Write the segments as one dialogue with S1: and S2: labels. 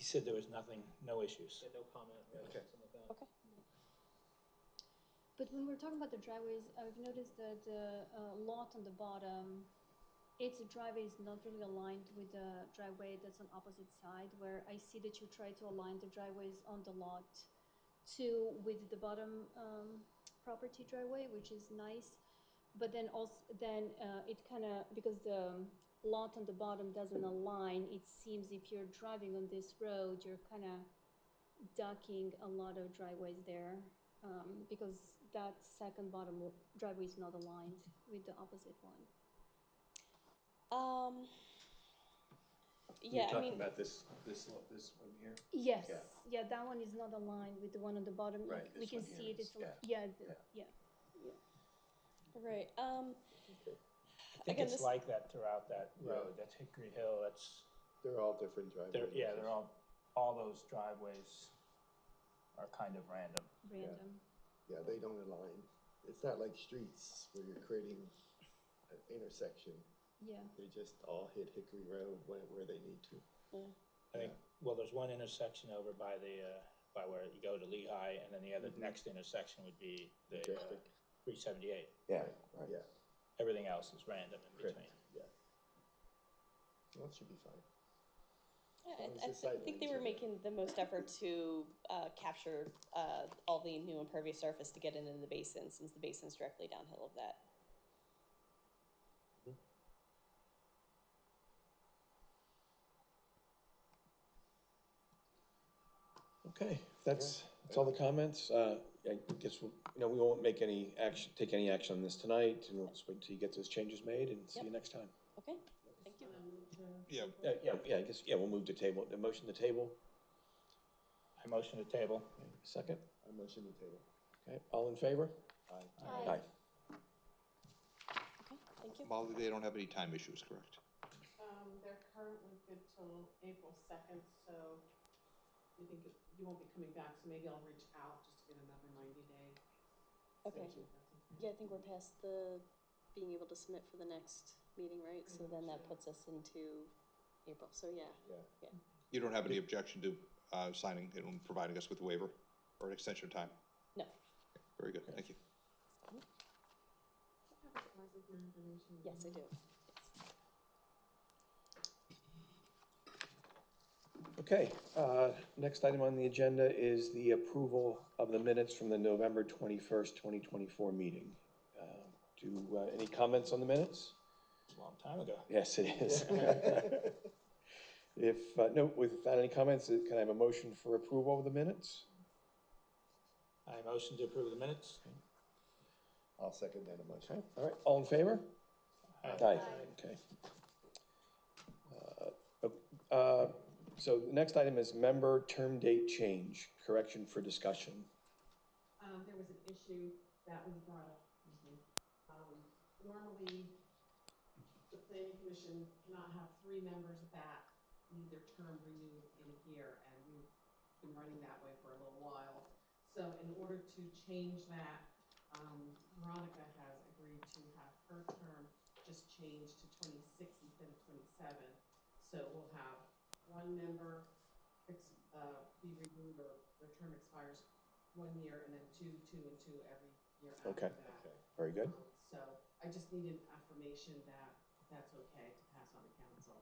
S1: said there was nothing, no issues.
S2: Yeah, no comment, right,
S1: Okay.
S2: something like that.
S3: But when we're talking about the driveways, I've noticed that the uh, lot on the bottom, its driveway is not really aligned with the driveway that's on opposite side, where I see that you try to align the driveways on the lot to with the bottom um, property driveway, which is nice. But then also, then uh, it kind of, because the um, lot on the bottom doesn't align, it seems if you're driving on this road, you're kind of ducking a lot of driveways there um, because that second bottom w- driveway is not aligned with the opposite one.
S4: Um.
S5: You're
S4: Yeah, I
S5: talking
S4: mean,
S5: about this, this, lo- this one here?
S3: Yes, yeah, that one is not aligned with the one on the bottom.
S5: Right,
S3: Like, we
S5: this
S3: can
S5: one here
S3: see it.
S5: is,
S3: It's al- yeah, th- yeah.
S4: right. Um,
S1: I think
S4: Again,
S1: it's
S4: this-
S1: like that throughout that
S5: Yeah.
S1: road, that's Hickory Hill, that's,
S6: They're all different driveways.
S1: they're, yeah, they're all, all those driveways are kind of random.
S3: random.
S6: Yeah, they don't align. It's not like streets where you're creating an intersection.
S3: Yeah.
S6: They just all hit Hickory Road where, where they need to.
S1: I think, well, there's one intersection over by the, uh, by where you go to Lehigh, and then the other, next intersection would be the
S6: Drifter.
S1: three seventy-eight.
S5: Yeah, right.
S6: Yeah,
S1: Everything else is random in
S6: Correct.
S1: between.
S6: that should be fine.
S4: yeah,
S6: long as
S4: I, I
S6: the sight
S4: think they
S6: lines
S4: were
S6: are-
S4: making the most effort to uh, capture uh, all the new impervious surface to get it in the basin, since the basin's directly downhill of that.
S5: Okay, that's, that's all the comments. Uh, I guess, we'll you know, we won't make any action, take any action on this tonight, and we'll just wait until you get those changes made and see you next time.
S4: Okay, thank you.
S5: Yeah. Yeah, yeah, I guess, yeah, we'll move to table, the motion to table,
S1: I motion to table.
S5: second,
S6: I motion to table.
S5: okay, all in favor?
S6: Aye.
S3: Aye.
S4: Okay, thank you.
S7: Molly, they don't have any time issues, correct?
S8: Um, they're currently good till April second, so you think it- you won't be coming back, so maybe I'll reach out just to get another ninety day.
S4: Okay.
S8: extension, if that's okay.
S4: Yeah, I think we're past the being able to submit for the next meeting, right? So then that puts us into April. So yeah,
S7: You don't have any objection to uh, signing it and providing us with a waiver or an extension of time?
S4: no.
S7: Very good, thank you.
S8: Do you have a slide with your information?
S4: Yes, I do.
S5: Okay, uh, next item on the agenda is the approval of the minutes from the November twenty-first, twenty twenty-four meeting. Uh, Do, uh, any comments on the minutes?
S1: It's a long time ago.
S5: Yes, it is. If, uh, no, without any comments, uh, can I have a motion for approval of the minutes?
S1: I motion to approve the minutes.
S6: I'll second that motion.
S5: Okay, all right, all in favor?
S1: Aye.
S5: Okay. Uh, uh, So the next item is member term date change, correction for discussion.
S8: Um, there was an issue that was brought up. Um, normally, the planning commission cannot have three members that need their term renewed in a year, and we've been running that way for a little while. So in order to change that, um, Veronica has agreed to have her term just changed to twenty-six instead of twenty-seven. So we'll have one member, ex- uh, be renewed or their term expires one year and then two, two and two every year
S5: Okay.
S8: after that.
S5: Very good.
S8: Um, So I just need an affirmation that that's okay to pass on the council.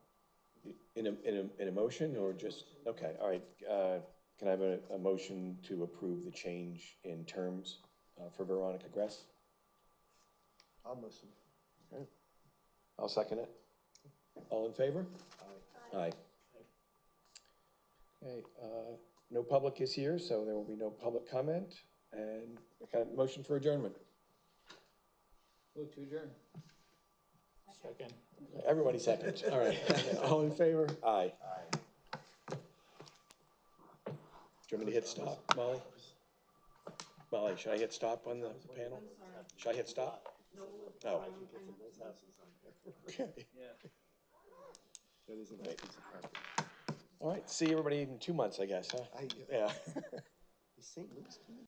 S5: In a, in a, in a motion or just, okay, all right. uh, Can I have a, a motion to approve the change in terms uh, for Veronica Gress?
S6: I'll motion.
S5: I'll second it. All in favor?
S6: Aye.
S5: Aye. Okay, uh, no public is here, so there will be no public comment. And can I have a motion for adjournment.
S2: Move to adjourn.
S1: Second.
S5: Everybody seconds, all right. All in favor? Aye.
S1: Aye.
S5: Do you want me to hit stop, Molly? Molly, should I hit stop on the the panel?
S8: I'm sorry,
S5: Should I hit stop?
S8: no,
S5: Oh.
S8: um, I have
S5: Okay.
S6: That is a nice piece of property.
S5: All right, see everybody in two months, I guess, huh?
S6: I,
S5: Yeah.
S6: is St. Louis coming?